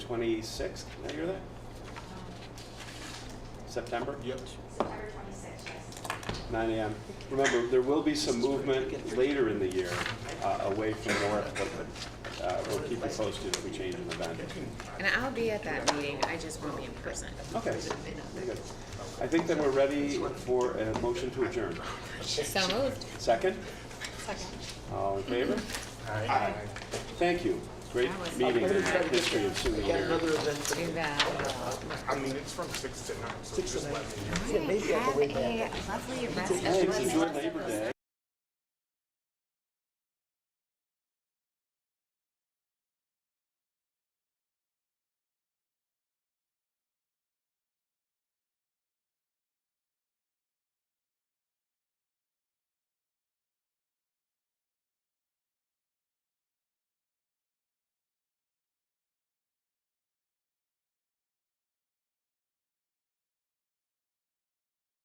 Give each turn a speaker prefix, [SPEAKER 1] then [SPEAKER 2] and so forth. [SPEAKER 1] 26th, can I hear that? September?
[SPEAKER 2] Yep.
[SPEAKER 3] September twenty-sixth, yes.
[SPEAKER 1] 9 AM. Remember, there will be some movement later in the year uh, away from Warwick, but uh, we'll keep you posted if we change an event.
[SPEAKER 4] And I'll be at that meeting, I just won't be in person.
[SPEAKER 1] Okay, very good. I think then we're ready for a motion to adjourn.
[SPEAKER 4] So moved.
[SPEAKER 1] Second?
[SPEAKER 4] Second.
[SPEAKER 1] All in favor? Aye. Thank you. Great
[SPEAKER 4] That was-
[SPEAKER 1] meeting in history of Sioux
[SPEAKER 5] Got
[SPEAKER 1] Area.
[SPEAKER 5] another event
[SPEAKER 4] Do
[SPEAKER 5] today.
[SPEAKER 4] that.
[SPEAKER 2] I mean, it's from six to nine, so
[SPEAKER 5] Six
[SPEAKER 2] just
[SPEAKER 5] and
[SPEAKER 2] let
[SPEAKER 5] nine.
[SPEAKER 2] me know.
[SPEAKER 5] Yeah, maybe I
[SPEAKER 4] Have
[SPEAKER 5] can
[SPEAKER 4] a
[SPEAKER 5] wait back.
[SPEAKER 4] lovely rest of
[SPEAKER 1] Hey,
[SPEAKER 4] the
[SPEAKER 1] enjoy Labor Day.